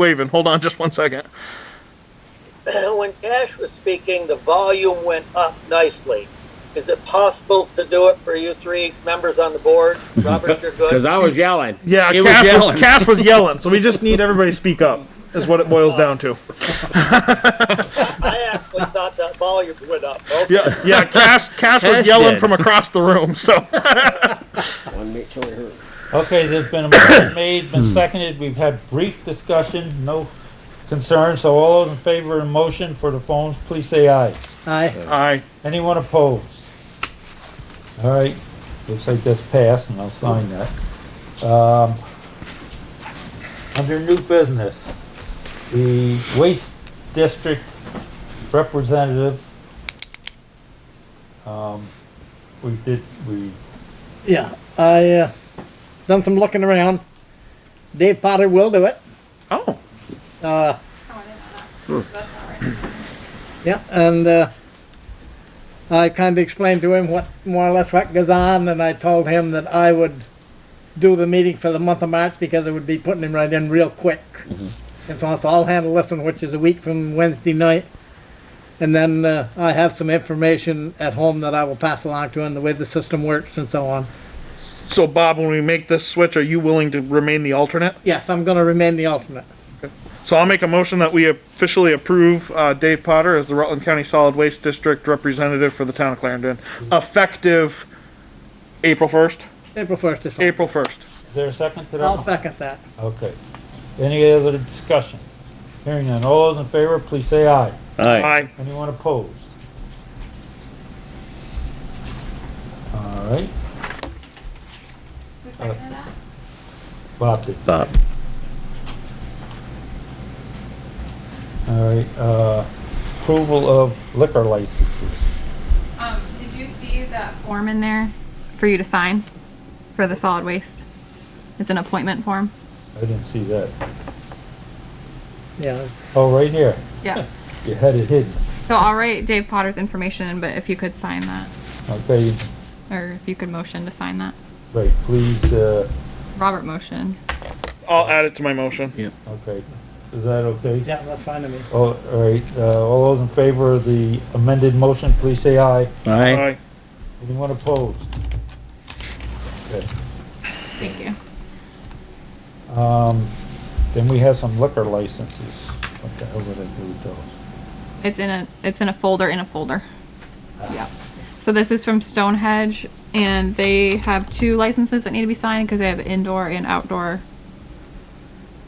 waving. Hold on just one second. when Cash was speaking, the volume went up nicely. Is it possible to do it for you three members on the board? Robert, you're good. Because I was yelling. Yeah, He was Cash, was yelling. Cash was yelling, so we just need everybody to speak up, is what it boils down to. I actually thought that volume went up. Okay. Yeah, yeah. Cash, Cash was Cash yelling did. from across the room. So One make sure I heard. Okay, there's been a motion made, been seconded, we've had brief discussion, no concern, so all those in favor of the motion for the phones, please say aye. Aye. I, Anyone opposed? All right, looks like that's passed, and I'll sign that. Um, under new business, the waste district representative, um, we did, we, Yeah, I, uh, done some looking around. Dave Potter will do it. oh, Uh, Oh, I didn't know that. That's all right. yeah, and, uh, I kinda explained to him what, more or less what goes on, and I told him that I would do the meeting for the month of March because it would be putting him right in real quick. And so so I'll handle this one, which is a week from Wednesday night. And then, uh, I have some information at home that I will pass along to him, the way the system works and so on. so Bob, when we make this switch, are you willing to remain the alternate? Yes, I'm gonna remain the alternate. So I'll make a motion that we officially approve uh, Dave Potter as the Rutland County Solid Waste District representative for the town of Clarendon, effective April first. April first is fine. April first. is there a second to that? I'll second that. Okay. Any other discussion? Hearing none. All those in favor, please say aye. Aye. Aye. Anyone opposed? All right, Who seconded that? Bob did. Bob. All right, uh, approval of liquor licenses. Um, did you see that form in there for you to sign for the solid waste? It's an appointment form. I didn't see that. Yeah, Oh, right here. Yeah. You had it hidden. So I'll write Dave Potter's information, in, but if you could sign that, Okay, or if you could motion to sign that. right, please, uh, Robert motion. I'll add it to my motion. okay. Is that okay? yeah, that's fine to me. All right, uh, all those in favor of the amended motion, please say aye. Aye. Aye. Anyone opposed? Okay. Thank you. Um, then we have some liquor licenses. What the hell did I do with those? It's in a it's in a folder in a folder. Yeah. So this is from Stonehenge, and they have two licenses that need to be signed because they have indoor and outdoor.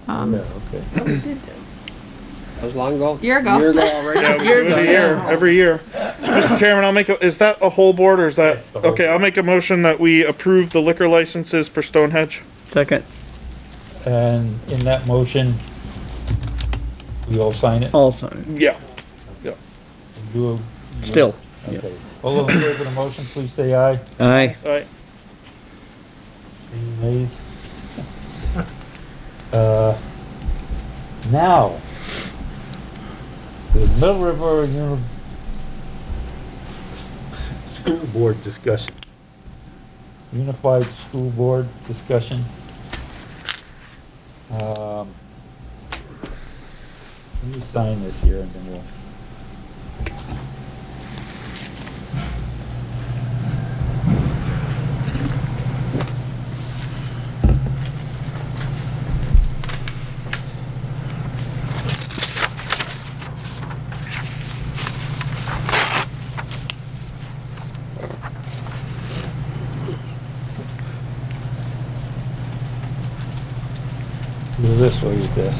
Um, Yeah, okay. That was long ago. Year ago. Year ago already. Yeah, we do it a year, every year. Mr. Chairman, I'll make, a is that a whole board or is that, Yes, the whole okay, I'll make a motion that we approve the liquor licenses for Stonehenge. Second. And in that motion, we all sign it? Also, Yeah. You- still. Okay. All those in favor of the motion, please say aye. Aye. Alright, Any nays? Uh, now, the Mill River Uni- School Board discussion. Unified School Board discussion. Um, let me sign this here and then we'll. Go this way with this.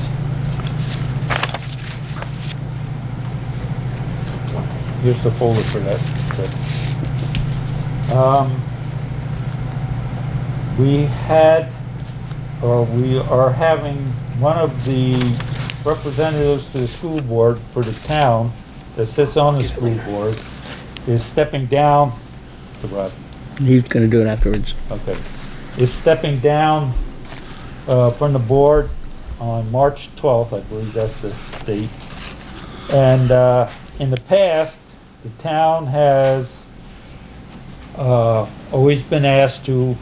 Here's the folder for that. but, Um, we had, or we are having one of the representatives to the school board for the town that sits on the school board is stepping down to Rob. He's gonna do it afterwards. Okay. Is stepping down uh, from the board on March 12th, I believe that's the date. And uh, in the past, the town has uh, always been asked to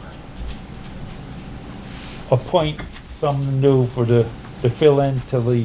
appoint someone new for the, to fill in till the